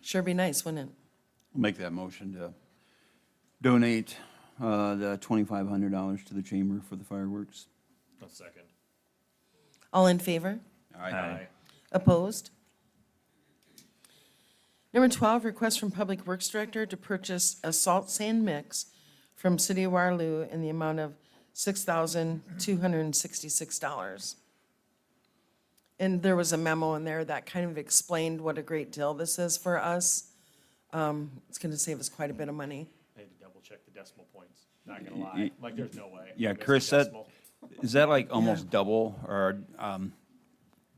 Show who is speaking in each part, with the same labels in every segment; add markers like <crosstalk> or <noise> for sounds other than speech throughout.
Speaker 1: Sure be nice, wouldn't it?
Speaker 2: Make that motion to donate uh, the $2,500 to the chamber for the fireworks.
Speaker 3: A second.
Speaker 1: All in favor?
Speaker 4: Uh,
Speaker 3: Aye.
Speaker 1: Opposed? Number 12, request from Public Works Director to purchase a salt sand mix from City of Waterloo in the amount of $6,266. And there was a memo in there that kind of explained what a great deal this is for us. Um, It's going to save us quite a bit of money.
Speaker 3: I had to double check the decimal points. Not gonna lie, like, there's no way.
Speaker 4: Yeah,
Speaker 3: I missed a
Speaker 4: Chris, that,
Speaker 3: decimal.
Speaker 4: is that like almost double or um,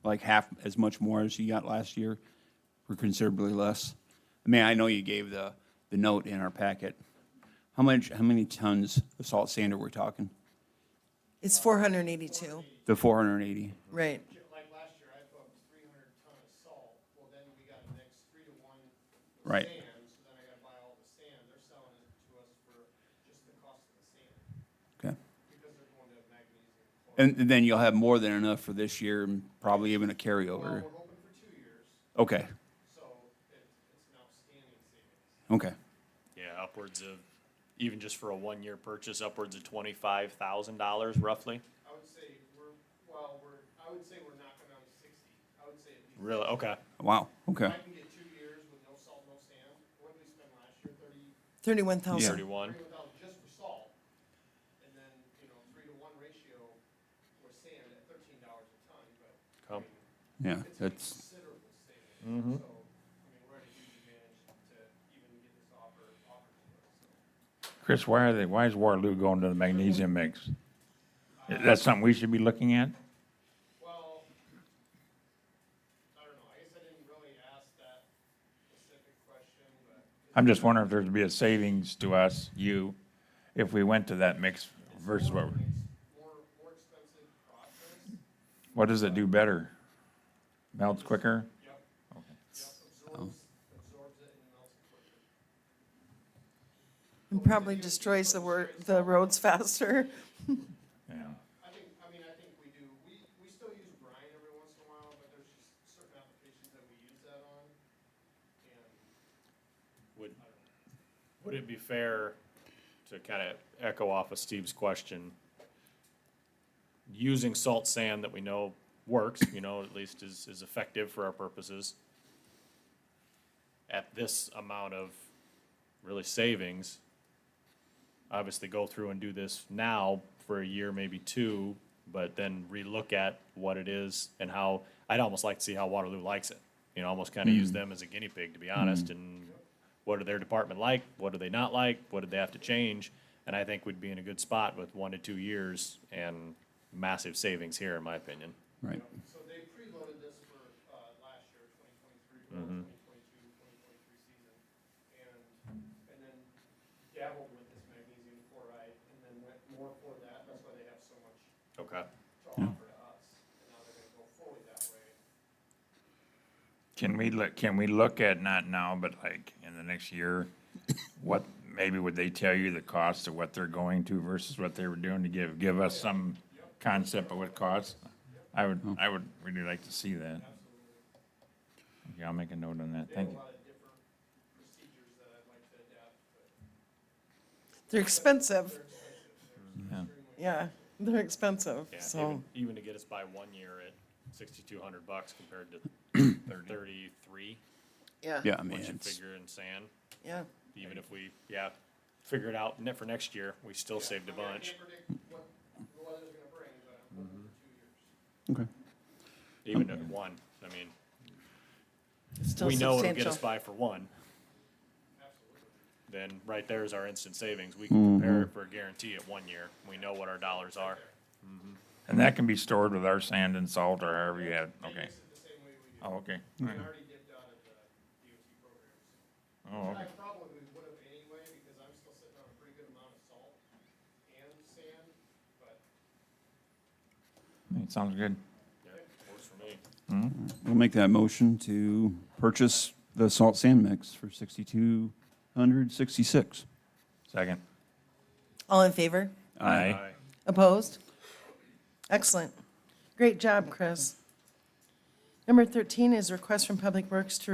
Speaker 4: like half as much more as you got last year? Or considerably less? I mean, I know you gave the, the note in our packet. How much, how many tons of salt sand are we talking?
Speaker 1: It's 482,
Speaker 4: The four hundred and eighty?
Speaker 1: right?
Speaker 5: Like last year, I put three hundred ton of salt, well, then we got a next three to one with
Speaker 4: Right.
Speaker 5: sand, so then I gotta buy all the sand, they're selling it to us for just the cost of the sand,
Speaker 4: Okay.
Speaker 5: because they're going to magnesium. chloride.
Speaker 4: And and then you'll have more than enough for this year and probably even a carryover.
Speaker 5: Well, we're hoping for two years,
Speaker 4: Okay,
Speaker 5: so it, it's an outstanding savings.
Speaker 4: okay.
Speaker 3: Yeah, upwards of, even just for a one-year purchase, upwards of twenty-five thousand dollars roughly.
Speaker 5: I would say we're, well, we're, I would say we're knocking on sixty, I would say at least.
Speaker 3: Really? Okay.
Speaker 4: Wow, okay.
Speaker 5: If I can get two years with no salt, no sand, what did we spend last year, thirty,
Speaker 1: 31,000.
Speaker 3: Thirty-one.
Speaker 5: Three without just for salt, and then, you know, three to one ratio for sand at thirteen dollars a ton, but
Speaker 3: Come.
Speaker 4: Yeah,
Speaker 5: it's a
Speaker 4: that's,
Speaker 5: considerable savings. So, I mean, we're at a huge advantage to even get this offer, offered to us, so.
Speaker 6: Chris, why are they, why is Waterloo going to the magnesium mix? That's something we should be looking at?
Speaker 5: Well, I don't know, I guess I didn't really ask that specific question, but
Speaker 6: I'm just wondering if there'd be a savings to us, you, if we went to that mix versus what,
Speaker 5: it's more, more expensive process.
Speaker 6: what does it do better? Melts quicker?
Speaker 5: Yep,
Speaker 6: Okay.
Speaker 5: yep, absorbs, absorbs it and melts it quicker.
Speaker 1: And probably destroys the wor, the roads <laughs> faster.
Speaker 6: Yeah.
Speaker 5: I think, I mean, I think we do, we, we still use brine every once in a while, but there's just certain applications that we use that on. And
Speaker 3: Would, would it be fair to kind of echo off of Steve's question? Using salt sand that we know works, you know, at least is, is effective for our purposes. At this amount of really savings, obviously go through and do this now for a year, maybe two, but then relook at what it is and how, I'd almost like to see how Waterloo likes it. You know, almost kind of use them as a guinea pig, to be honest, and what are their department like? What do they not like? What do they have to change? And I think we'd be in a good spot with one to two years and massive savings here, in my opinion.
Speaker 4: right.
Speaker 5: so they preloaded this for, uh, last year, twenty twenty-three, twenty
Speaker 6: Mm-hmm.
Speaker 5: twenty-two, twenty twenty-three season. And, and then dabbled with this magnesium chloride and then went more for that, that's why they have so much
Speaker 3: Okay.
Speaker 5: to offer to us. And now they're gonna go fully that way.
Speaker 6: Can we look, can we look at, not now, but like in the next year, what, maybe would they tell you the cost of what they're going to versus what they were doing to give, give us some concept of what costs? I would, I would really like to see that. Okay, I'll make a note on that,
Speaker 5: They have
Speaker 6: thank
Speaker 5: a
Speaker 6: you.
Speaker 5: lot of different procedures that I'd like to adapt, but
Speaker 1: They're expensive.
Speaker 6: Yeah.
Speaker 1: Yeah, they're expensive,
Speaker 3: Yeah.
Speaker 1: so.
Speaker 3: Even, even to get us by one year at sixty-two hundred bucks compared to thirty-three,
Speaker 1: Yeah.
Speaker 4: Yeah, I mean,
Speaker 3: what you
Speaker 4: it's,
Speaker 3: figure in sand.
Speaker 1: Yeah.
Speaker 3: Even if we, yeah, figure it out ne- for next year, we still saved a bunch.
Speaker 5: can't predict what the weather's gonna bring, but I'm
Speaker 6: Mm-hmm.
Speaker 5: hoping for two years.
Speaker 4: okay.
Speaker 3: Even at one, I mean,
Speaker 1: it's still
Speaker 3: we know it'll get us
Speaker 1: substantial.
Speaker 3: by for one. Then right there is our instant savings. We can prepare it for a guarantee at one year. We know what our dollars are.
Speaker 6: And that can be stored with our sand and salt or however you have, okay.
Speaker 5: It's the same way we do.
Speaker 6: Oh, okay.
Speaker 5: I already dipped out of the DOT program, so.
Speaker 6: Oh,
Speaker 5: I
Speaker 6: okay.
Speaker 5: probably would have anyway, because I'm still sitting on a pretty good amount of salt and sand, but
Speaker 6: It sounds good.
Speaker 3: Yeah, works for me.
Speaker 4: We'll make that motion to purchase the salt sand mix for sixty-two hundred sixty-six.
Speaker 6: Second.
Speaker 1: All in favor?
Speaker 3: Aye.
Speaker 1: Opposed? Excellent. Great job, Chris. Number 13 is request from Public Works to